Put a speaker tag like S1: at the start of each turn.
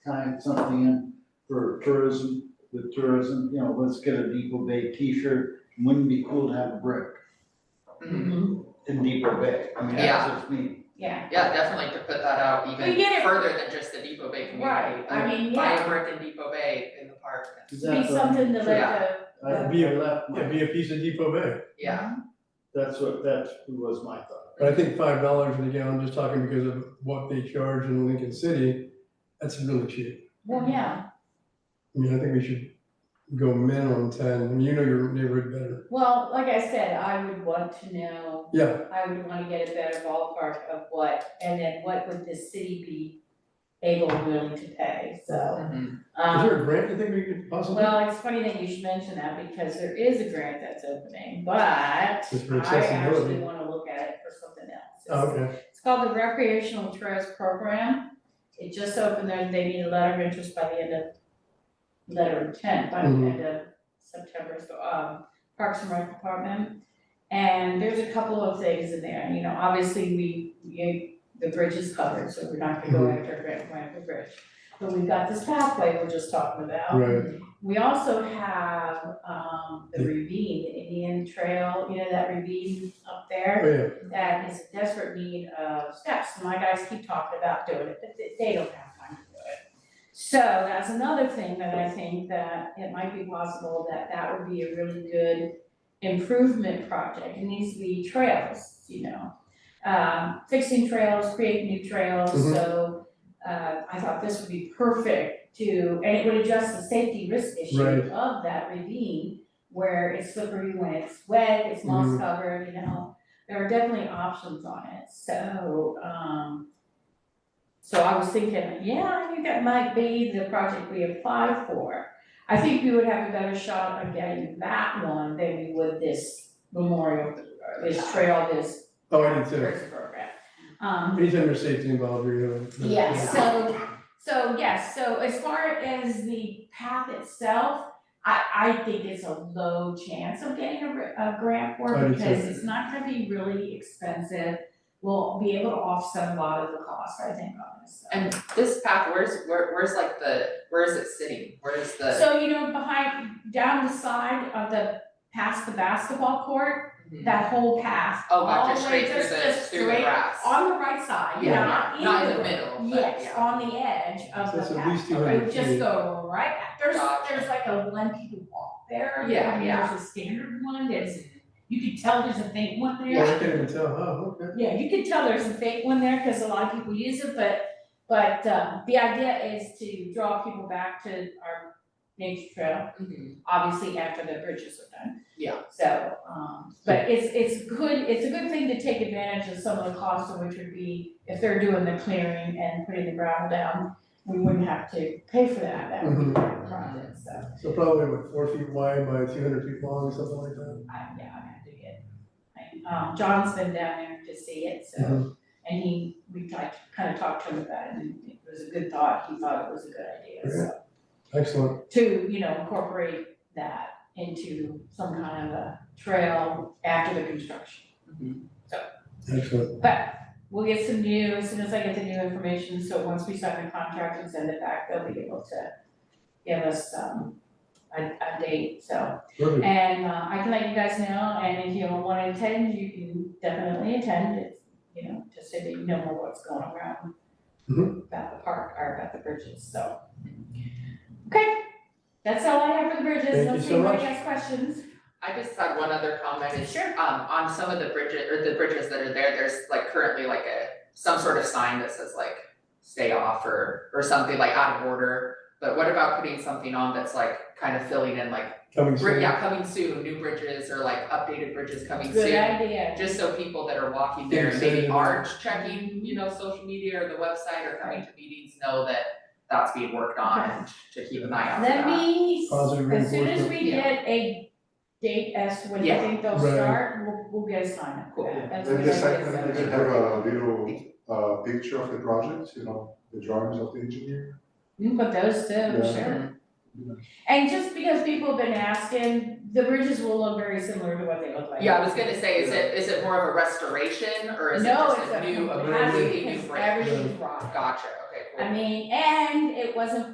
S1: time something in for tourism, with tourism, you know, let's get a Depot Bay t-shirt. Wouldn't it be cool to have a brick
S2: Mm-hmm.
S3: Mhm.
S1: in Depot Bay? I mean, that's just me.
S4: Yeah,
S3: Yeah, definitely to put that out
S4: We
S3: even
S4: get it.
S3: further than just the Depot Bay community.
S4: right, I mean,
S3: Buy a
S4: yeah,
S3: brick in Depot Bay in the park,
S1: Is that
S4: be something to like a,
S1: I I left
S2: It'd
S1: my,
S2: be a piece of Depot Bay,
S3: yeah,
S1: that's what, that was my thought.
S2: but I think five dollars for the gallon, just talking because of what they charge in Lincoln City, that's really cheap.
S4: well, yeah,
S2: I mean, I think we should go minimum ten, I mean, you know your neighborhood better.
S4: well, like I said, I would want to know,
S2: Yeah,
S4: I would wanna get a better ballpark of what, and then what would the city be able and willing to pay, so.
S3: Mhm.
S2: is
S4: um,
S2: there a grant you think we could possibly?
S4: Well, it's funny that you should mention that because there is a grant that's opening, but I
S2: It's for
S4: actually
S2: accessibility.
S4: wanna look at it for something else.
S2: Oh, Okay,
S4: It's called the Recreational Trails Program. It just opened, and they need a letter of interest by the end of, letter of intent by the
S2: Mhm.
S4: end of September, so, um, Parks and Rec Department. And there's a couple of things in there, you know, obviously, we, you, the bridge is covered, so we're not gonna go after Grant Point for Bridge. But we've got this pathway we're just talking about.
S2: right,
S4: We also have, um, the ravine, the Indian Trail, you know, that ravine up there
S2: oh yeah,
S4: that is in desperate need of steps, and my guys keep talking about doing it, but they- they don't have time to do it. So that's another thing that I think that it might be possible that that would be a really good improvement project, it needs to be trails, you know. Um, fixing trails, creating new trails,
S2: Mhm.
S4: so, uh, I thought this would be perfect to, and it would address the safety risk
S2: Right.
S4: issue of that ravine where it's slippery when it's wet, it's moss
S2: Mhm.
S4: covered, you know, there are definitely options on it, so, um. So I was thinking, yeah, I think that might be the project we apply for. I think we would have a better shot of getting that one than we would this memorial, this trail, this.
S2: oh, I did too,
S4: bridge Program. Um,
S2: anytime there's safety involved, you're gonna.
S4: yeah, so, so yes, so as far as the path itself, I, I think it's a low chance of getting a, gr- a grant for
S2: I
S4: it
S2: do too.
S4: because it's not gonna be really expensive. We'll be able to offset a lot of the cost, I think, on this. stuff.
S3: and this path, where's, where, where's like the, where is it sitting, where's the?
S4: So, you know, behind, down the side of the, past the basketball court,
S3: Mhm.
S4: that whole path,
S3: Oh,
S4: all
S3: gotcha,
S4: the way,
S3: straight through
S4: just,
S3: the,
S4: just
S3: through the
S4: straight
S3: grass.
S4: on the right side,
S3: Yeah,
S4: not in the.
S3: Not in the middle, but yeah.
S4: Yes, on the edge of
S2: So
S4: the
S2: that's
S4: path.
S2: at least
S4: I would
S2: 200
S4: oh, just
S2: feet.
S4: go right, at- there's,
S3: Gotcha.
S4: there's like a one people walk there,
S3: Yeah,
S4: and
S3: yeah.
S4: there's a standard one, there's, you could tell there's a fake one there.
S2: Yeah, I can't even tell, oh, okay,
S4: Yeah, you could tell there's a fake one there, cause a lot of people use it, but, but, uh, the idea is to draw people back to our nature trail,
S3: Mhm.
S4: obviously after the bridges are done.
S3: Yeah.
S4: So, um, but it's, it's good, it's a good thing to take advantage of some of the costs, which would be, if they're doing the clearing and putting the gravel down, we wouldn't have to pay for that, that would be part of the project, so,
S2: so probably what, four feet wide by two hundred feet long, something like that.
S4: I, yeah, I have to get. I- Um, John's been down there to see it, so,
S2: Mhm.
S4: and he, we tried, kind of talked to him about it, and it was a good thought, he thought it was a good idea, so.
S2: Excellent,
S4: to, you know, incorporate that into some kind of a trail after the construction.
S2: excellent,
S4: But we'll get some new, as soon as I get the new information, so once we sign the contract and send it back, they'll be able to give us, um, a, a date, so.
S2: perfect,
S4: And, uh, I can let you guys know, and if you don't wanna attend, you can definitely attend, it's, you know, just so that you know more what's going around
S2: Mhm.
S4: about the park or about the bridges, so. Okay, that's all I have for the bridges,
S2: Thank you
S4: unless
S2: so
S4: anybody
S2: much.
S4: has questions.
S3: I just had one other comment, is
S4: Sure.
S3: um, on some of the bridges, or the bridges that are there, there's like currently like a, some sort of sign that says like, stay off or, or something like out of order. But what about putting something on that's like kind of filling in like,
S2: coming
S3: bri-
S2: soon,
S3: yeah, coming soon, new bridges or like updated bridges coming soon?
S4: Good idea.
S3: Just so people that are walking there and
S2: Exactly.
S3: maybe aren't checking, you know, social media or the website or coming to meetings, know that that's being worked on and to keep an eye out for that.
S4: Let me,
S2: Positive
S4: as soon as
S2: reinforcement.
S4: we get a date as to when you
S3: Yeah.
S4: think they'll
S2: Right.
S4: start, we'll, we'll get a sign up for
S3: Cool.
S4: that, that's what
S5: Maybe
S4: I
S5: the
S4: guess.
S5: second, we could have a little, uh, picture of the project, you know, the drawings of the engineer.
S4: You can put those too,
S5: Yeah.
S4: sure. And just because people have been asking, the bridges will look very similar to what they look like.
S3: Yeah, I was gonna say, is it, is it more of a restoration or is it
S4: No,
S3: just
S4: it's
S3: a new, a
S4: a,
S3: completely new
S4: it's
S3: brand?
S4: everything's rock.
S3: Gotcha, okay, cool.
S4: I mean, and it wasn't